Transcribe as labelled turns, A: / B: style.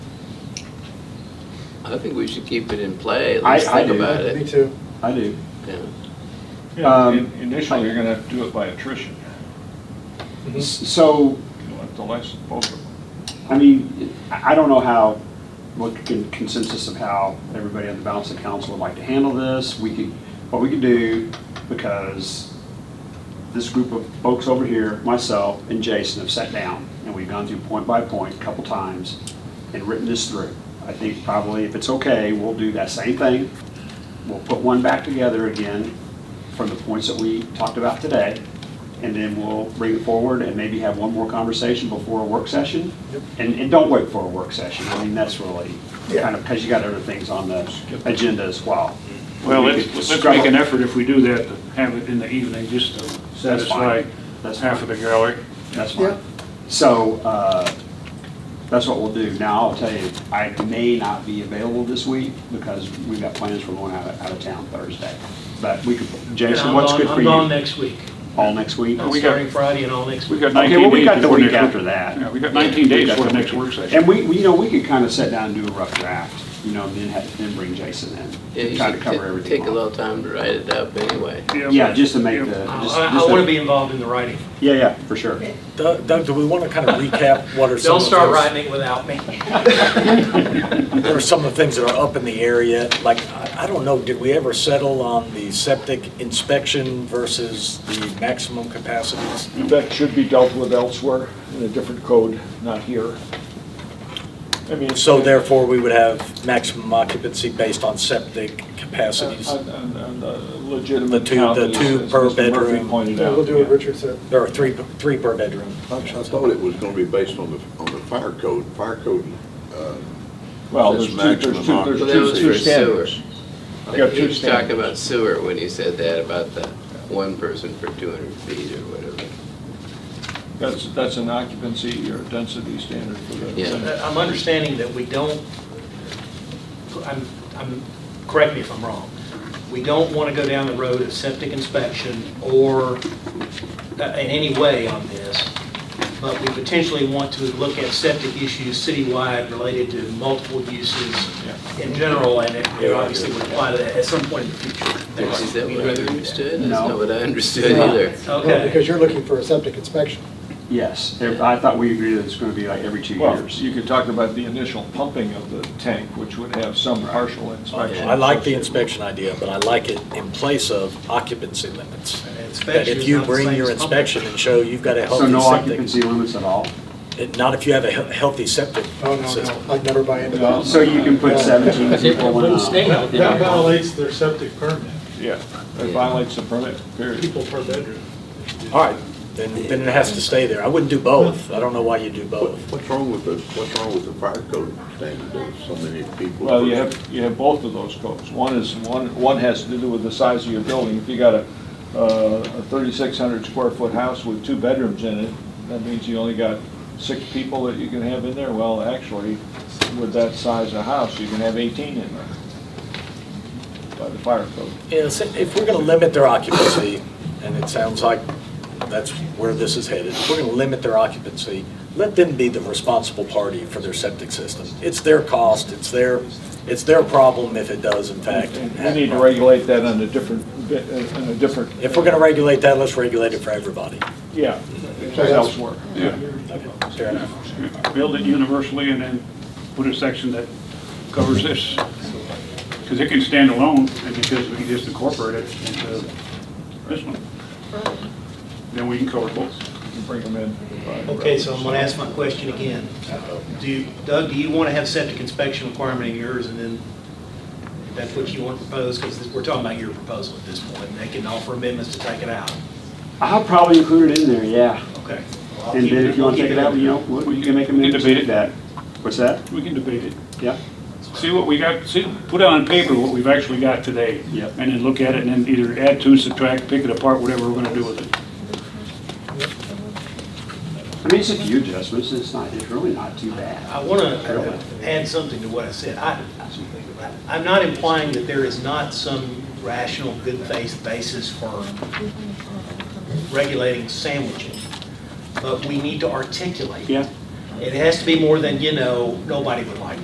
A: I think we should keep it in play, at
B: I-
A: least
B: I
A: think
B: do.
A: about
C: Me
D: Uh,
A: it.
C: too.
B: I do.
A: Yeah.
E: Yeah,
B: Um,
E: in- Initially, you're gonna do it by attrition.
B: S- So,
E: You want the license, both of them.
B: I mean, I I don't know how, what can consensus of how everybody on the balance of council would like to handle this. We could, what we could do, because this group of folks over here, myself and Jason have sat down and we've gone through point by point a couple times and written this through. I think probably if it's okay, we'll do that same thing. We'll put one back together again from the points that we talked about today. And then we'll bring it forward and maybe have one more conversation before a work session.
C: Yep.
B: And, and don't wait for a work session. I mean, that's really
C: Yeah.
B: kind of, because you got other things on the agenda as well.
F: Well,
B: We
F: let's,
B: could
F: let's
B: scrabble-
F: make an effort if we do that, to have it in the evening, just to
B: That's
F: satisfy
B: fine. That's fine.
F: half of the gallery.
B: That's
C: Yeah.
B: fine. So, uh, that's what we'll do. Now, I'll tell you, I may not be available this week because we've got plans for going out of, out of town Thursday. But we could, Jason,
G: I'm
B: what's
G: gone-
B: good for
G: I'm gone
B: you?
G: next Oh, week,
B: All next week?
F: we got-
G: starting Friday and all next
F: We
G: week.
F: got
B: Okay, well,
F: 19
B: we
F: days
B: got the
F: before
B: week
F: next
B: after
F: work- Yeah,
B: that.
F: we got 19
B: We
F: days
B: got
F: for the
B: the
F: next work session.
B: And we, we- you know, we could kind of sit down and do a rough draft, you know, and then have, then bring Jason
A: Yeah,
B: in.
A: you
B: Try to
A: should
B: cover
A: ta-
B: everything.
A: take a
B: off.
A: little time to write it up anyway.
B: Yeah, just to make the.
G: I-
B: just-
G: I,
B: just
G: want to
B: the-
G: be involved in the writing.
B: Yeah, yeah, for sure.
D: Doug, Doug, do we want to kind of recap what are some
G: Don't
D: of
G: start
D: those,
G: writing it without me.
D: what are some of the things that are up in the area? Like, I I don't know, did we ever settle on the septic inspection versus the maximum capacities?
C: That should be dealt with elsewhere in a different code, not here. I mean,
D: So therefore, we would have maximum occupancy based on septic capacities.
C: On- on- on the
D: The
C: Legitimate
D: two-
C: count,
D: the
C: as-
D: two
C: as
D: per
C: Mr. Murphy
D: bedroom.
C: Pointed
H: Yeah,
C: out.
H: we'll do what Richard said. Oh,
D: There are three, three per bedroom.
I: I thought it was gonna be based on the, on the fire code, fire code, uh,
C: Well,
I: That's
C: there's two, there's two,
I: maximum
C: there's
I: occupancy.
A: Well, that
C: two-
A: was
C: two
A: for sewer.
C: standards. You
A: You
C: got two
A: was talking
C: standards.
A: about sewer when you said that, about the one person for 200 feet or whatever.
C: That's, that's an occupancy or density standard for the.
A: Yeah.
C: thing.
G: Uh, I'm understanding that we don't, I'm, I'm, correct me if I'm wrong, we don't want to go down the road of septic inspection or uh, in any way on this, but we potentially want to look at septic issues citywide related to multiple uses in general, and it it obviously would apply to that at some point in the future.
A: Is that what I understood? That's
B: No.
A: not what I understood
H: No.
A: either.
H: No,
G: Okay.
H: Because you're looking for a septic inspection.
B: Yes, I thought we agreed that it's going to be like every two
C: Well,
B: years.
C: you could talk about the initial pumping of the tank, which would have some partial inspection.
D: I like the inspection idea, but I like it in place of occupancy limits. That
G: Inspection
D: if
G: is
D: you
G: not the
D: bring
G: same
D: your
G: as pumping.
D: inspection and show you've got a
B: So
D: healthy
B: no
D: septic,
B: occupancy limits at all?
D: it- not if you have a he- healthy septic
H: Oh, no,
D: system.
H: no, I'd never buy into
C: No.
H: that.
B: So you can put 17 people in a...
C: Yeah.
J: That violates their septic permit,
C: Yeah, it violates the permit, period.
J: people per bedroom.
D: All right, then, then it has to stay there. I wouldn't do both. I don't know why you do
I: What,
D: both.
I: what's wrong with the, what's wrong with the fire code standard, there's so many people.
C: Well, you have, you have both of those codes. One is, one, one has to do with the size of your building. If you got a, uh, a thirty-six hundred square foot house with two bedrooms in it, that means you only got six people that you can have in there. Well, actually, with that size of house, you can have eighteen in there by the fire code.
D: Yes, if we're gonna limit their occupancy, and it sounds like that's where this is headed, if we're gonna limit their occupancy, let them be the responsible party for their septic system. It's their cost, it's their, it's their problem if it does in fact.
C: And
D: have a
C: We need to
D: problem.
C: regulate that on a different, bit- uh, on a different.
D: If we're gonna regulate that, let's regulate it for everybody.
C: Yeah, elsewhere.
D: Fair enough.
F: Build it universally and then put a section that covers this. Because it can stand alone, and because we can just incorporate it into this one. Then we can cover both.
C: Bring them in.
G: Okay, so I'm going to ask my question again. Do, you- Doug, do you want to have septic inspection requirement in yours, and then if that's what you want to propose? Because we're talking about your proposal at this point, and they can offer amendments to take it out.
B: I'll probably include it in there, yeah.
G: Okay.
B: And then if you want to take it out, you know, what- you can make a minute to
F: Debate it.
B: do that. What's that?
F: We can debate it.
B: Yeah.
F: See what we got, see, put on paper what we've actually got today.
B: Yep.
F: And then look at it and then either add to, subtract, pick it apart, whatever we're gonna do with it.
B: I mean, it's a few adjustments, it's not, it's really not too bad.
G: I want to add something to what I said. I, I'm not implying that there is not some rational, good faith basis for regulating sandwiches, but we need to articulate.
B: Yeah.
G: It has to be more than, you know, nobody would like